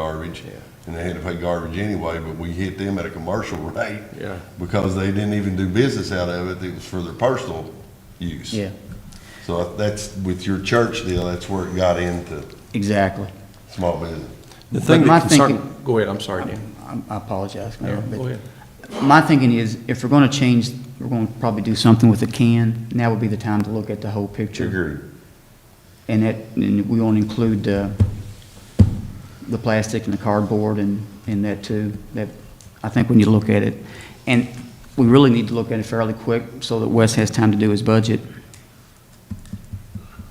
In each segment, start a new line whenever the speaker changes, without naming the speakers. garbage.
Yeah.
And they had to pay garbage anyway, but we hit them at a commercial rate.
Yeah.
Because they didn't even do business out of it, it was for their personal use.
Yeah,
So that's, with your church deal, that's where it got into
exactly.
small business.
The thing
But my
that concern,
thinking-
go ahead, I'm sorry, Dan.
I I apologize, Mayor,
Yeah, go ahead.
but my thinking is, if we're gonna change, we're gonna probably do something with the can, now would be the time to look at the whole picture.
Agreed.
And that, and we want to include uh, the plastic and the cardboard and, and that too. That, I think we need to look at it. And we really need to look at it fairly quick so that Wes has time to do his budget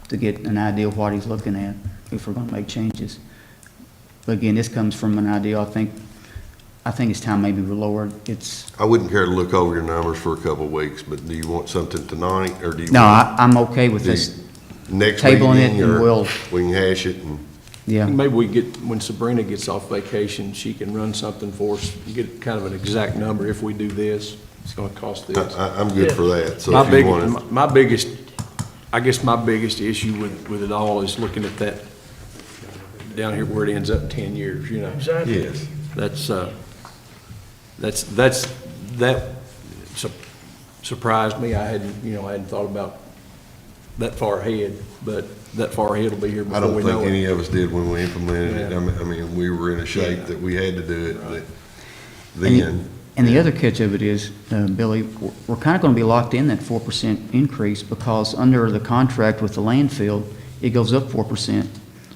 to get an idea of what he's looking at if we're going to make changes. But again, this comes from an idea, I think, I think it's time maybe we lowered, it's,
I wouldn't care to look over your numbers for a couple of weeks, but do you want something tonight, or do you?
no,
want
I, I'm okay with
the
this,
Next meeting,
tabling it and
or
we'll-
We can hash it and.
yeah.
Maybe we get, when Sabrina gets off vacation, she can run something for us, get kind of an exact number, if we do this, it's gonna cost
I,
this.
I- I'm good for that, so
My
if you
big,
want to.
my biggest, I guess my biggest issue with, with it all is looking at that down here where it ends up ten years, you know?
Exactly.
Yes.
That's, uh, that's, that's, that su- surprised me. I hadn't, you know, I hadn't thought about that far ahead, but that far ahead will be here
I
before
don't
we
think
know
any
it.
of us did when we implemented it.
Yeah.
I mean, I mean, we were in a shape
Yeah.
that we had to do it, but
And the-
then,
And the other catch of it is, uh, Billy, we're- we're kind of going to be locked in that 4% increase because under the contract with the landfill, it goes up 4%,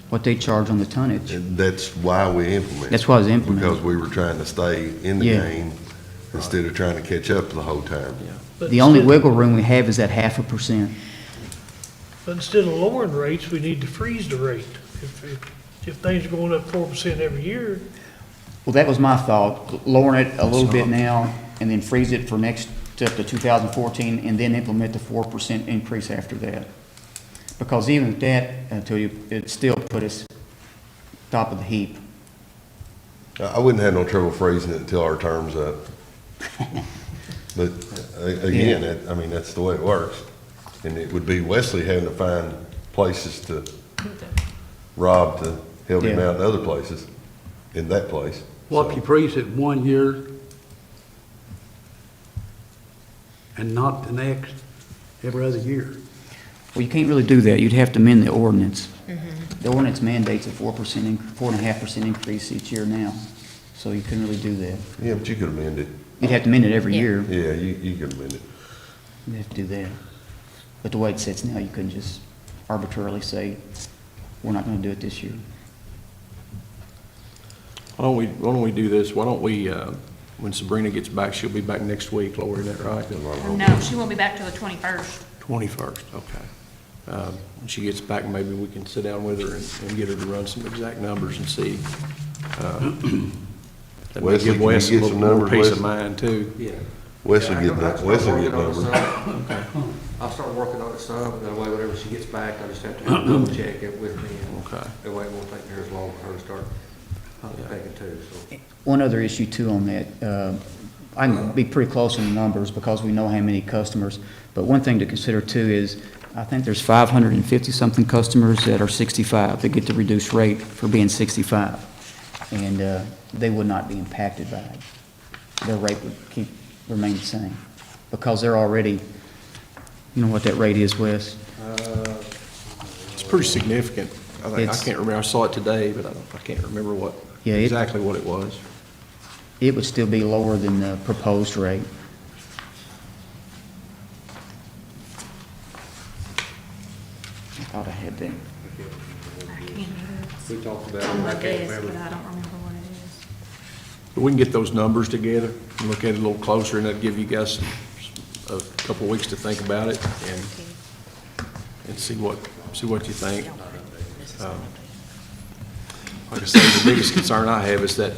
what they charge on the tonnage.
and that's why we implemented.
That's why it's
it,
implemented.
Because we were trying to stay in the
Yeah.
game instead of trying to catch up the whole time.
But
The only
instead-
wiggle room we have is that half a percent.
But instead of lowering rates, we need to freeze the rate. If, if, if things are going up four percent every year,
Well, that was my thought, lowering it a little bit now and then freeze it for next, up to 2014, and then implement the 4% increase after that. Because even at that, until you, it still put us top of the heap.
I, I wouldn't have no trouble phrasing it until our term's up. But a- again, that- I mean, that's the way it works. And it would be Wesley having to find places to, Rob to help him
Yeah.
out in other places, in that place.
Well, if
So-
you freeze it one year and not the next, every other year.
Well, you can't really do that. You'd have to amend the ordinance. The ordinance mandates a four percent, four and a half percent increase each year now, so you couldn't really do that.
Yeah, but you could amend it.
You'd have to amend it every
Yeah.
year.
Yeah, you, you could amend it.
You'd have to do that. But the way it sits now, you couldn't just arbitrarily say, we're not gonna do it this year.
Why don't we, why don't we do this? Why don't we, uh, when Sabrina gets back, she'll be back next week, Lori, isn't that right?
No, she won't be back till the twenty-first.
Twenty-first, okay. Um, When she gets back, maybe we can sit down with her and, and get her to run some exact numbers and see. uh, That may
Wesley,
give
can you
Wes a
get
little
some
more
numbers,
peace of
Wesley?
mind too.
Yeah.
Wes will
Yeah, I
get
go back
that,
to
Wes will
working
get
on it
numbers.
some. I'll start working on it some, and that way whenever she gets back, I just have to double check it with me. and
Okay.
That way it won't take near as long for her to start thinking too, so.
One other issue too on that, uh, I can be pretty close on the numbers because we know how many customers, but one thing to consider too is, I think there's 550-something customers that are 65 that get the reduced rate for being 65, and uh, they would not be impacted by it. Their rate would keep, remain the same, because they're already, you know what that rate is, Wes?
It's pretty significant. I think, I
It's-
can't remember, I saw it today, but I don't, I can't remember what,
Yeah, it-
exactly what it was.
It would still be lower than the proposed rate. I thought I had that.
I can't remember.
We talked about it,
It's on
and
Oh, my
I can't
desk, but
remember.
I don't remember what it is.
But We can get those numbers together, and look at it a little closer, and that'd give you guys a couple of weeks to think about it and, and see what, see what you think. Um, Like I said, the biggest concern I have is that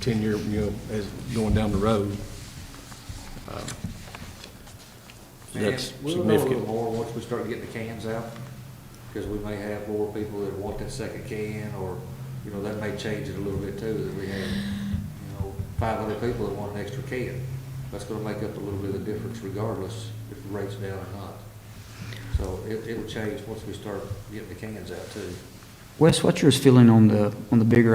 ten-year, you know, as going down the road. um, That's
And We'll know a little
significant.
more once we start getting the cans out, because we may have more people that want that second can, or, you know, that may change it a little bit too, that we have, you know, five other people that want an extra can. That's gonna make up a little bit of the difference regardless if the rate's down or not. So it, it'll change once we start getting the cans out too.
Wes, what's your feeling on the, on the bigger